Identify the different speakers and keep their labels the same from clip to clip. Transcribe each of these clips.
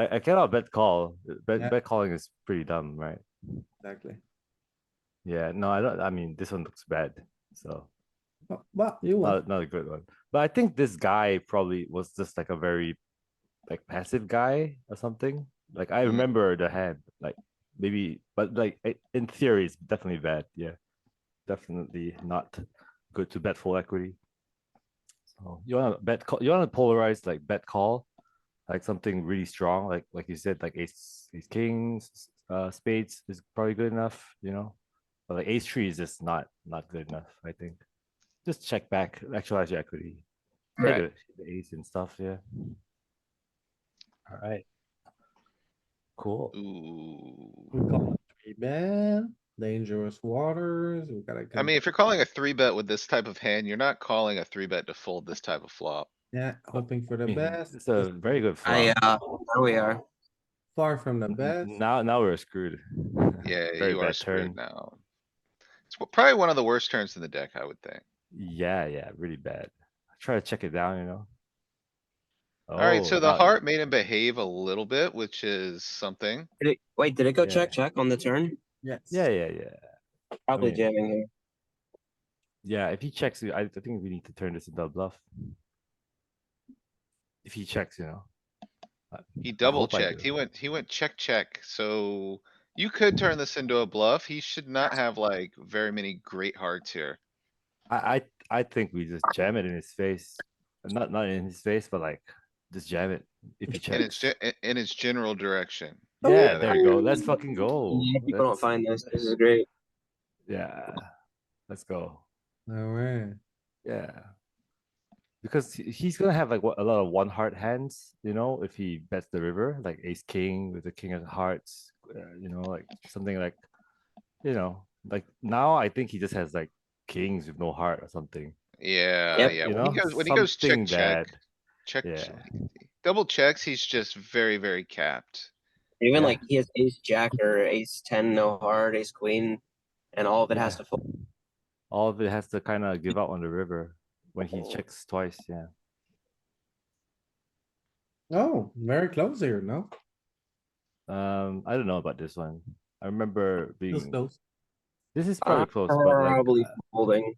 Speaker 1: I, I cannot bet call. Bet,
Speaker 2: Yeah.
Speaker 1: bet calling is pretty dumb, right?
Speaker 2: Exactly.
Speaker 1: Yeah, no, I don't. I mean, this one looks bad, so
Speaker 2: But- But you won.
Speaker 1: not, not a good one. But I think this guy probably was just like a very like passive guy or something. Like I
Speaker 2: Mm.
Speaker 1: remember the hand, like maybe, but like i- in theory, it's definitely bad. Yeah, definitely not good to bet full equity. So you want to bet? Call, you want to polarize like bet call, like something really strong, like like you said, like ace, ace kings, s- uh, spades is probably good enough. You know, but like ace three is just not not good enough. I think just check back, actualize your equity. Take
Speaker 3: Right.
Speaker 1: a- The ace and stuff, yeah. All right. Cool.
Speaker 3: Ooh.
Speaker 2: We call it Three bet, dangerous waters, we gotta.
Speaker 3: I
Speaker 2: come-
Speaker 3: mean, if you're calling a three bet with this type of hand, you're not calling a three bet to fold this type of flop.
Speaker 2: Yeah, hoping for the
Speaker 1: Mhm.
Speaker 2: best,
Speaker 1: It's a very good
Speaker 4: I,
Speaker 1: flop.
Speaker 4: uh, there we are.
Speaker 2: far from the
Speaker 1: N-
Speaker 2: best.
Speaker 1: Now, now we're screwed.
Speaker 3: Yeah,
Speaker 1: Very
Speaker 3: you are
Speaker 1: bad
Speaker 3: screwed
Speaker 1: turn.
Speaker 3: now. It's w- probably one of the worst turns in the deck, I would think.
Speaker 1: Yeah, yeah, really bad. I Try to check it down, you know?
Speaker 3: Alright, so
Speaker 1: Oh,
Speaker 3: the
Speaker 1: uh,
Speaker 3: heart made him behave a little bit, which is something.
Speaker 4: Did it, wait, did it go check,
Speaker 1: Yeah.
Speaker 4: check on the turn?
Speaker 2: Yes.
Speaker 1: Yeah, yeah, yeah.
Speaker 4: Probably
Speaker 1: mean-
Speaker 4: jamming here.
Speaker 1: Yeah, if he checks, I, I think we need to turn this into a bluff. If he checks, you know?
Speaker 3: He double
Speaker 1: hope I
Speaker 3: checked.
Speaker 1: do.
Speaker 3: He went, he went check, check, so you could turn this into a bluff. He should not have like very many great hearts here.
Speaker 1: I, I, I think we just jam it in his face. Not, not in his face, but like, just jam it. If he
Speaker 3: In its,
Speaker 1: checks.
Speaker 3: ge- i- in its general direction.
Speaker 1: Yeah,
Speaker 3: Yeah,
Speaker 1: there you go. Let's Oh, fucking go.
Speaker 4: Yeah, people don't
Speaker 1: Let's-
Speaker 4: find this. This is great.
Speaker 1: Yeah, let's go.
Speaker 2: Alright,
Speaker 1: Yeah. Because he- he's gonna have like what, a lot of one heart hands, you know, if he bets the river, like ace king with the king of hearts, uh, you know, like something like, you know, like now I think he just has like kings with no heart or something.
Speaker 3: Yeah,
Speaker 4: Yep.
Speaker 3: yeah.
Speaker 1: you
Speaker 3: When he
Speaker 1: know?
Speaker 3: goes, when he goes
Speaker 1: Something
Speaker 3: check, check,
Speaker 1: that-
Speaker 3: check,
Speaker 1: yeah.
Speaker 3: check, double checks, he's just very, very capped.
Speaker 4: Even
Speaker 1: Yeah.
Speaker 4: like he has ace jack or ace ten, no heart, ace queen, and all of it has
Speaker 1: Yeah.
Speaker 4: to fold.
Speaker 1: All of it has to kind of give out on the river when he checks twice. Yeah.
Speaker 2: oh, very close here, no?
Speaker 1: Um, I don't know about this one. I remember
Speaker 2: This
Speaker 1: being.
Speaker 2: close,
Speaker 1: This is probably close, but like,
Speaker 4: Probably
Speaker 1: uh,
Speaker 4: folding.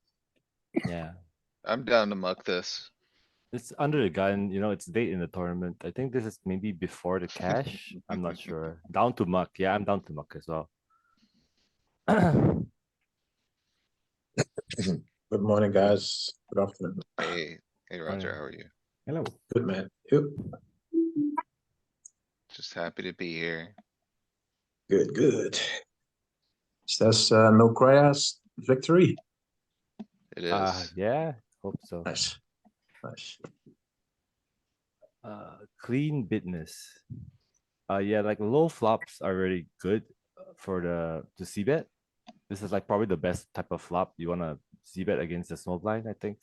Speaker 1: yeah.
Speaker 3: I'm down to muck this.
Speaker 1: It's under the gun, you know, it's late in the tournament. I think this is maybe before the cash. I'm not sure. Down to muck. Yeah, I'm down to muck as well.
Speaker 5: Good morning, guys. Good afternoon.
Speaker 3: Hey, hey
Speaker 1: Oh,
Speaker 3: Roger, how are you?
Speaker 2: hello,
Speaker 5: Good man. You?
Speaker 3: Just happy to be here.
Speaker 5: Good, good. Is this uh, Milcrea's victory?
Speaker 3: It
Speaker 1: Uh,
Speaker 3: is.
Speaker 1: yeah, hope so.
Speaker 5: Nice. Nice.
Speaker 1: Uh, clean business. Uh, yeah, like low flops are really good uh, for the to see bet. This is like probably the best type of flop you wanna see bet against the small blind, I think.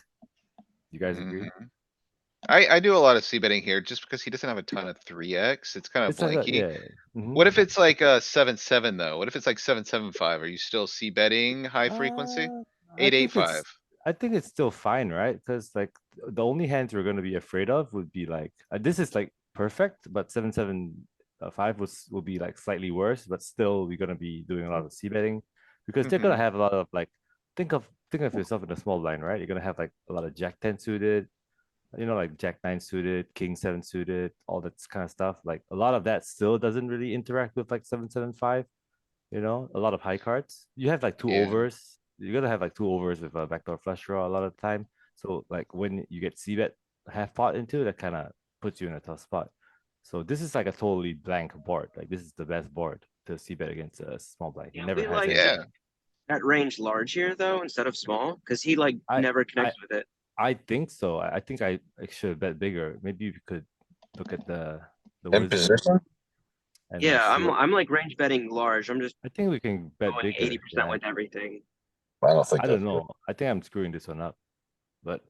Speaker 1: You guys agree?
Speaker 3: Mhm. I, I do a lot of c betting here just because he doesn't have a ton of three X. It's kind of
Speaker 1: It's like a-
Speaker 3: blanky.
Speaker 1: yeah, mhm.
Speaker 3: What if it's like uh seven, seven though? What if it's like seven, seven, five? Are you still c betting high frequency?
Speaker 1: Uh, I
Speaker 3: Eight, eight,
Speaker 1: think it's-
Speaker 3: five.
Speaker 1: I think it's still fine, right? Because like th- the only hands we're gonna be afraid of would be like uh, this is like perfect, but seven seven uh, five was will be like slightly worse, but still we're gonna be doing a lot of c betting because they're gonna have a lot of like think of think of yourself in a small blind, right? You're gonna have like a lot of jack ten suited, you know, like jack nine suited, king seven suited, all that kind of stuff. Like a lot of that still doesn't really interact with like seven seven five. You know, a lot of high cards. You have like two
Speaker 3: Yeah.
Speaker 1: overs. You're gonna have like two overs with a backdoor flush draw a lot of the time. So like when you get c bet half pot into, that kind of puts you in a tough spot. So this is like a totally blank board. Like this is the best board to c bet against a small blind. It
Speaker 4: Yeah,
Speaker 1: never
Speaker 4: we
Speaker 1: has.
Speaker 4: like-
Speaker 1: any-
Speaker 3: Yeah,
Speaker 4: That range large here though, instead of small, because he like
Speaker 1: I-
Speaker 4: never connects with it.
Speaker 1: I think so. I I think I I should have bet bigger. Maybe we could look at the. the
Speaker 5: In
Speaker 1: wizard
Speaker 5: position?
Speaker 1: and, uh,
Speaker 4: Yeah,
Speaker 1: see
Speaker 4: I'm
Speaker 1: what-
Speaker 4: I'm like range betting large. I'm just
Speaker 1: I think we can bet
Speaker 4: going
Speaker 1: bigger.
Speaker 4: eighty
Speaker 1: yeah.
Speaker 4: percent with everything.
Speaker 5: I don't think.
Speaker 1: I don't
Speaker 5: that's
Speaker 1: know. I think I'm screwing this one up. But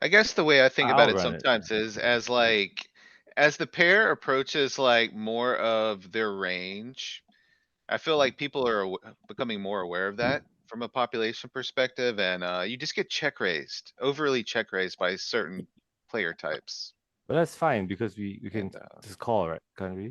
Speaker 3: I guess the way I think about it
Speaker 1: Outrun it.
Speaker 3: sometimes is as like, as the pair approaches like more of their range. I feel like people are aw- becoming more aware of that from a population perspective and, uh, you just get check raised, overly check raised by certain player types. uh
Speaker 1: But that's fine because we, we can
Speaker 3: And, uh,
Speaker 1: just call, right? Can't we?